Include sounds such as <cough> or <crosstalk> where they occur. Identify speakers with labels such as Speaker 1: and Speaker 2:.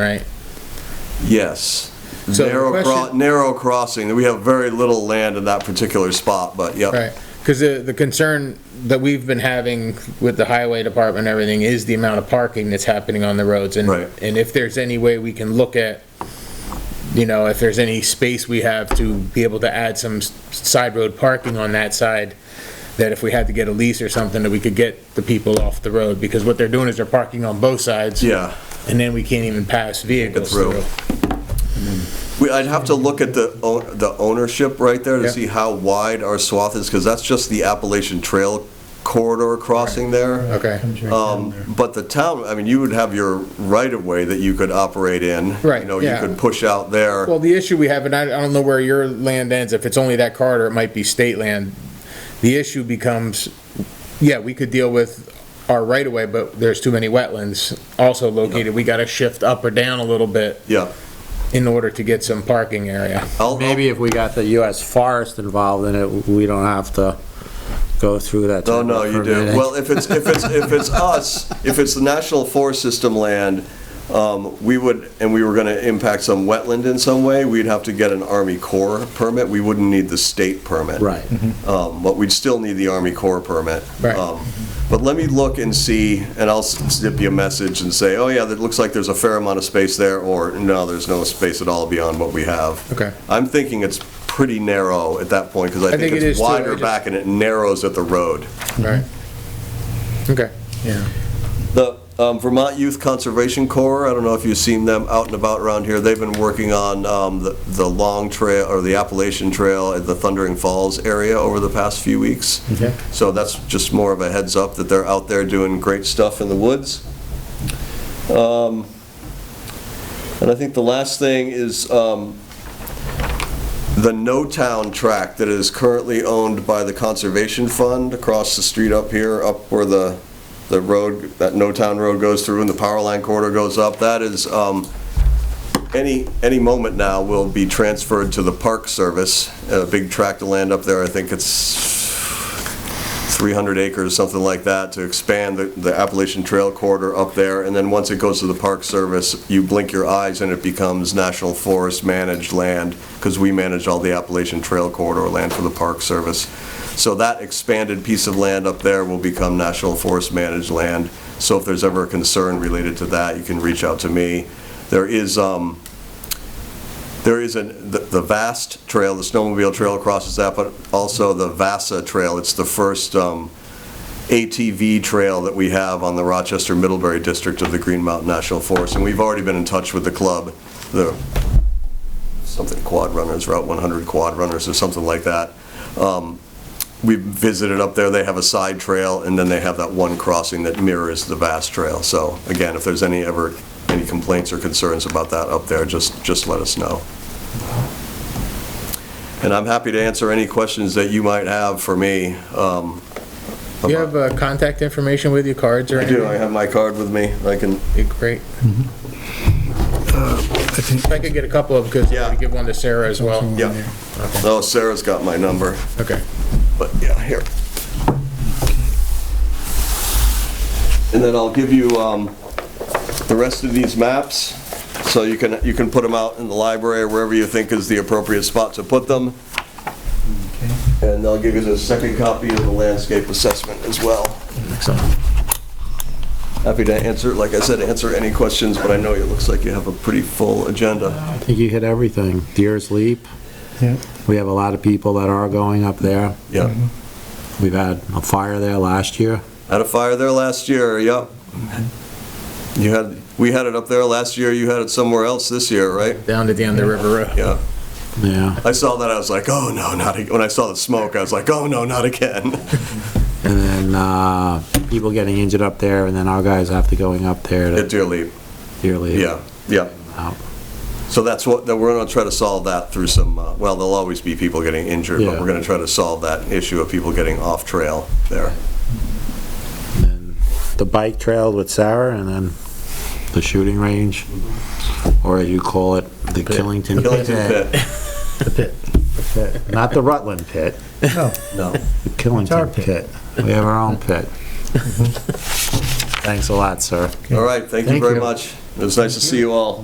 Speaker 1: right?
Speaker 2: Yes.
Speaker 1: So the
Speaker 2: Narrow, cro-
Speaker 1: question-
Speaker 2: narrow crossing, we have very little land in that particular spot, but yep.
Speaker 1: Right, because the, the concern that we've been having with the highway department and everything is the amount of parking that's happening on the roads. and
Speaker 2: Right.
Speaker 1: And if there's any way we can look at, you know, if there's any space we have to be able to add some s- side road parking on that side, that if we had to get a lease or something, that we could get the people off the road, because what they're doing is they're parking on both sides.
Speaker 2: Yeah.
Speaker 1: And then we can't even pass vehicles
Speaker 2: through.
Speaker 1: through.
Speaker 2: We, I'd have to look at the, o- the ownership right there to
Speaker 1: Yeah.
Speaker 2: see how wide our swath is, because that's just the Appalachian Trail corridor crossing there.
Speaker 1: Okay.
Speaker 2: Um, but the town, I mean, you would have your right-of-way that you could operate in.
Speaker 1: Right,
Speaker 2: You know,
Speaker 1: yeah.
Speaker 2: you could push out there.
Speaker 1: Well, the issue we have, and I, I don't know where your land ends, if it's only that corridor, it might be state land. The issue becomes, yeah, we could deal with our right of way, but there's too many wetlands also located. We gotta shift up or down a little bit
Speaker 2: Yeah.
Speaker 1: in order to get some parking area.
Speaker 2: I'll- I'll-
Speaker 3: Maybe if we got the US Forest involved in it, we don't have to go through that.
Speaker 2: No,
Speaker 3: type
Speaker 2: Oh, no,
Speaker 3: of
Speaker 2: you do.
Speaker 3: permitting.
Speaker 2: Well, if it's, if it's, if it's us, if it's the National Forest System land, um, we would, and we were gonna impact some wetland in some way, we'd have to get an Army Corps permit. We wouldn't need the state permit.
Speaker 3: Right.
Speaker 2: Um, but we'd still need the Army Corps permit.
Speaker 1: Right.
Speaker 2: Um, But let me look and see, and I'll s- snip you a message and say, oh yeah, that looks like there's a fair amount of space there, or no, there's no space at all beyond what we have.
Speaker 1: Okay.
Speaker 2: I'm thinking it's pretty narrow at that point, because I think
Speaker 1: think it is
Speaker 2: it's
Speaker 1: too. I
Speaker 2: wider
Speaker 1: just-
Speaker 2: back and it narrows at the road.
Speaker 1: Right. Okay. Yeah.
Speaker 2: The um, Vermont Youth Conservation Corps, I don't know if you've seen them out and about around here, they've been working on um, the the Long Trail, or the Appalachian Trail at the Thundering Falls area over the past few weeks.
Speaker 3: Okay.
Speaker 2: So that's just more of a heads up that they're out there doing great stuff in the woods. Um, And I think the last thing is um, the No Town tract that is currently owned by the Conservation Fund across the street up here, up where the, the road, that No Town Road goes through and the power line corridor goes up, that is, um, any, any moment now will be transferred to the Park Service, a big tract of land up there, I think it's 300 acres, something like that, to expand the- the Appalachian Trail corridor up there, and then once it goes to the Park Service, you blink your eyes and it becomes National Forest managed land, because we manage all the Appalachian Trail corridor land for the Park Service. So that expanded piece of land up there will become National Forest managed land, so if there's ever a concern related to that, you can reach out to me. There is, um, there is a, the the Vast Trail, the snowmobile trail crosses that, but also the Vasa Trail. It's the first um, ATV trail that we have on the Rochester Middlebury District of the Green Mountain National Forest. And we've already been in touch with the club, the, something Quad Runners, Route 100 Quad Runners or something like that. Um, We visited up there, they have a side trail, and then they have that one crossing that mirrors the Vast Trail. So again, if there's any ever, any complaints or concerns about that up there, just, just let us know. And I'm happy to answer any questions that you might have for me. um,
Speaker 1: Do you have, uh, contact information with you, cards or
Speaker 2: I
Speaker 1: anything?
Speaker 2: do, I have my card with me, I can,
Speaker 1: Be Great.
Speaker 2: Mm-hmm.
Speaker 4: I think,
Speaker 1: If I could get a couple of, because I'm
Speaker 2: Uh, Yeah.
Speaker 1: gonna give one to Sarah as well.
Speaker 2: yeah. Oh, Sarah's got my number,
Speaker 1: Okay.
Speaker 2: but yeah, here. And then I'll give you um, the rest of these maps, so you can, you can put them out in the library or wherever you think is the appropriate spot to put them. And I'll give you the second copy of the landscape assessment as well.
Speaker 1: Excellent.
Speaker 2: Happy to answer, like I said, answer any questions, but I know it looks like you have a pretty full agenda.
Speaker 3: I think you hit everything. Deer's Leap,
Speaker 4: yeah,
Speaker 3: we have a lot of people that are going up there.
Speaker 2: Yeah.
Speaker 3: We've had a fire there last year.
Speaker 2: Had a fire there last year, yep. You had, we had it up there last year, you had it somewhere else this year, right?
Speaker 1: Down to the end of River Road.
Speaker 2: Yeah.
Speaker 3: Yeah.
Speaker 2: I saw that, I was like, oh no, not, ag-" when I saw the smoke, I was like, oh no, not again. <laughs>
Speaker 3: And then, uh, people getting injured up there and then our guys have to going up there
Speaker 2: At
Speaker 3: to
Speaker 2: Deer Leap,
Speaker 3: Deer Leap.
Speaker 2: yeah, yeah.
Speaker 3: Out.
Speaker 2: So that's what, that we're gonna try to solve that through some, uh, well, there'll always be people getting injured, but
Speaker 3: Yeah.
Speaker 2: we're gonna try to solve that issue of people getting off trail there.
Speaker 3: And then The bike trail with Sarah and then the shooting range, or as you call it, the Killington.
Speaker 2: Killington Pit,
Speaker 4: the pit.
Speaker 3: Pit. Not the Rutland Pit.
Speaker 4: No,
Speaker 2: <laughs>
Speaker 4: <laughs>
Speaker 2: no.
Speaker 4: It's our
Speaker 3: Killington
Speaker 4: pit.
Speaker 3: pit. We have our own
Speaker 4: <laughs>
Speaker 3: pit. Thanks a lot, sir.
Speaker 2: All right, thank you
Speaker 4: Thank
Speaker 2: very
Speaker 4: you.
Speaker 2: much. It was nice to see you all.